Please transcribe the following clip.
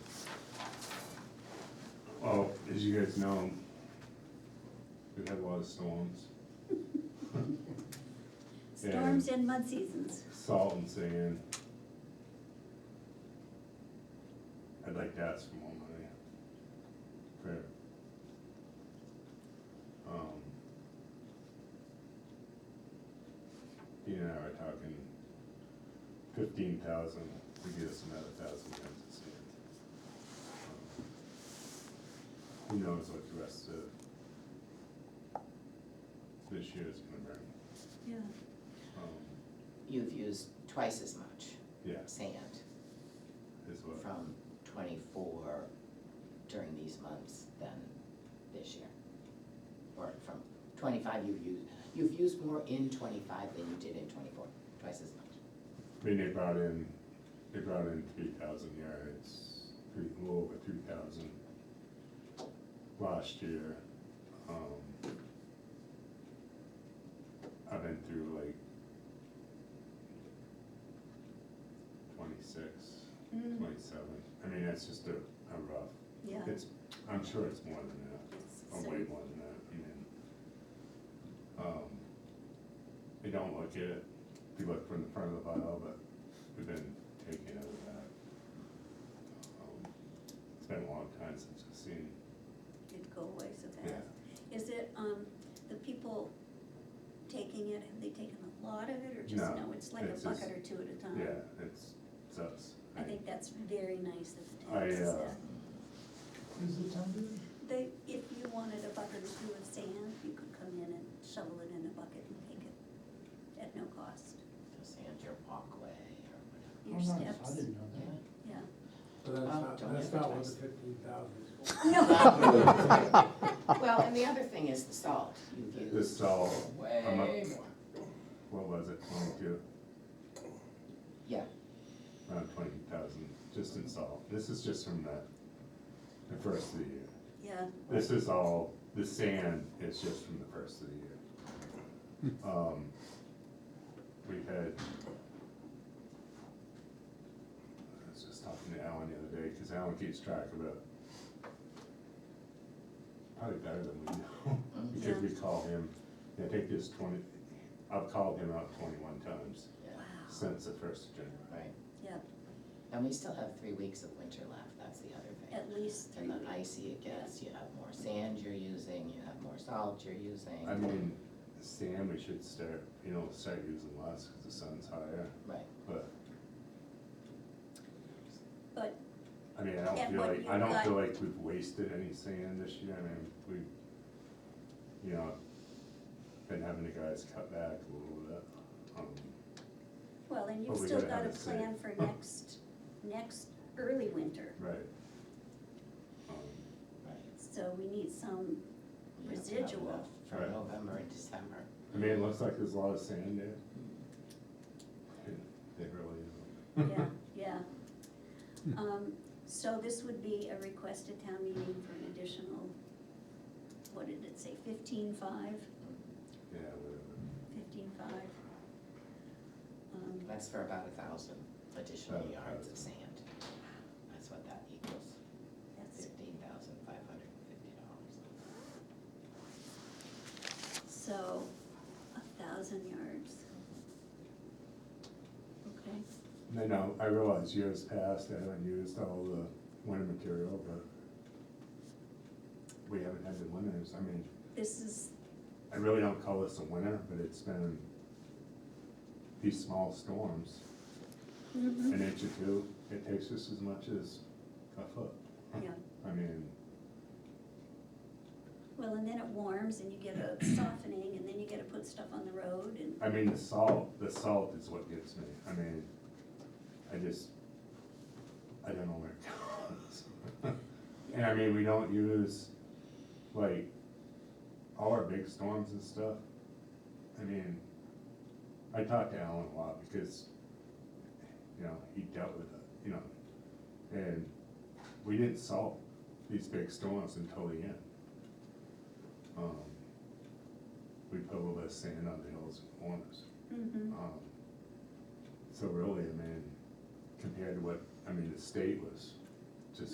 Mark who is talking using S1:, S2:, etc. S1: Oh, As you guys know, we've had a lot of storms, Yeah.
S2: Storms and mud seasons.
S1: salt and sand. I'd like to ask for more money. For, um, you and I were talking fifteen thousand to get us another thousand tons of sand. Um, Who knows what the rest of this year is gonna bring.
S2: Yeah.
S1: Um,
S3: You've used twice as much
S1: Yeah,
S3: sand
S1: is what,
S3: from twenty-four during these months than this year. Or from twenty-five you've used, you've used more in twenty-five than you did in twenty-four, twice as much.
S1: I mean, they brought in, they brought in three thousand yards, three, a little over three thousand last year. Um, I've been through like twenty-six,
S2: Mm,
S1: twenty-seven, I mean, that's just a, a rough,
S2: Yeah.
S1: it's, I'm sure it's more than that.
S2: It's-
S1: Oh,
S2: so-
S1: way more than that, I mean. Um, they don't look at it, they look from the front of the vial, but we've been taking out of that. Um, It's been a long time since I've seen,
S2: It go away so
S1: yeah,
S2: fast. Is it, um, the people taking it, have they taken a lot of it or just
S1: No,
S2: no? It's like a
S1: it's just-
S2: bucket or two at a time.
S1: yeah, it's, it's us.
S2: I think that's very nice of the
S1: I,
S2: town
S1: uh,
S2: that.
S4: Is the town doing?
S2: They, if you wanted a bucket or two of sand, you could come in and shovel it in a bucket and take it at no cost.
S3: The sand, your walkway or
S2: Your
S4: Oh, nice. I
S2: steps,
S4: didn't know
S3: whatever,
S4: that.
S2: yeah.
S5: But that's
S3: Oh,
S5: not,
S3: don't
S5: that's not what the
S3: advertise.
S5: fifteen thousand is for.
S2: No.
S3: yeah. Well, and the other thing is the salt, you've used.
S1: This salt,
S3: Way
S1: I'm up-
S3: more.
S1: what was it, twenty-two,
S3: Yeah,
S1: around twenty thousand, just in salt, this is just from the, the first of the year.
S2: Yeah,
S1: This is all, the sand is just from the first of the year. Um, We've had. I was just talking to Alan the other day, cause Alan keeps track of it. Probably better than we know,
S3: Mm-hmm.
S1: because we call him, I think there's twenty, I've called him out twenty-one times
S3: yeah,
S2: wow,
S1: since the first of January.
S3: right.
S2: yeah,
S3: And we still have three weeks of winter left, that's the other thing.
S2: at least three
S3: And the
S2: weeks.
S3: icy it gets, you have more sand you're using, you have more salt you're using.
S1: I mean, sand, we should start, you know, start using less, cause the sun's higher,
S3: Right,
S1: but
S2: But
S1: I mean, I don't
S2: And
S1: feel
S2: what
S1: like, I
S2: you've
S1: don't
S2: got-
S1: feel like we've wasted any sand this year, I mean, we, you know, been having the guys cut back a little bit. um,
S2: Well, and you've
S1: But we
S2: still
S1: gotta
S2: got a
S1: have it safe.
S2: plan for next, next early winter,
S1: Right. Um,
S3: right.
S2: so we need some,
S3: You have to have
S2: Residual.
S3: enough For
S1: Right.
S3: November and December.
S1: I mean, it looks like there's a lot of sand there. There really
S2: yeah,
S1: is.
S2: yeah.
S1: Hmm.
S2: Um, so this would be a request at town meeting for an additional, what did it say, fifteen-five,
S1: Yeah, whatever.
S2: fifteen-five? Um,
S3: That's for about a thousand additional
S1: About a
S3: yards
S1: thousand.
S3: of sand. That's what that equals,
S2: that's,
S3: fifteen thousand five hundred and fifty dollars.
S2: so, a thousand yards. Okay,
S1: No, no, I realize years past, I haven't used all the winter material, but we haven't had the winters, I mean,
S2: this is,
S1: I really don't call this a winter, but it's been these small storms,
S2: mhm,
S1: an inch or two, it takes us as much as a foot.
S2: yeah.
S1: I mean,
S2: Well, and then it warms and you get a softening and then you gotta put stuff on the road and,
S1: I mean, the salt, the salt is what gets me, I mean, I just, I don't know where it goes. And I mean, we don't use, like, all our big storms and stuff, I mean, I talked to Alan a lot because, you know, he dealt with it, you know, and we didn't solve these big storms until the end. Um, We put a little bit of sand on the hills and corners.
S2: Mhm.
S1: Um, So really, I mean, compared to what, I mean, the state was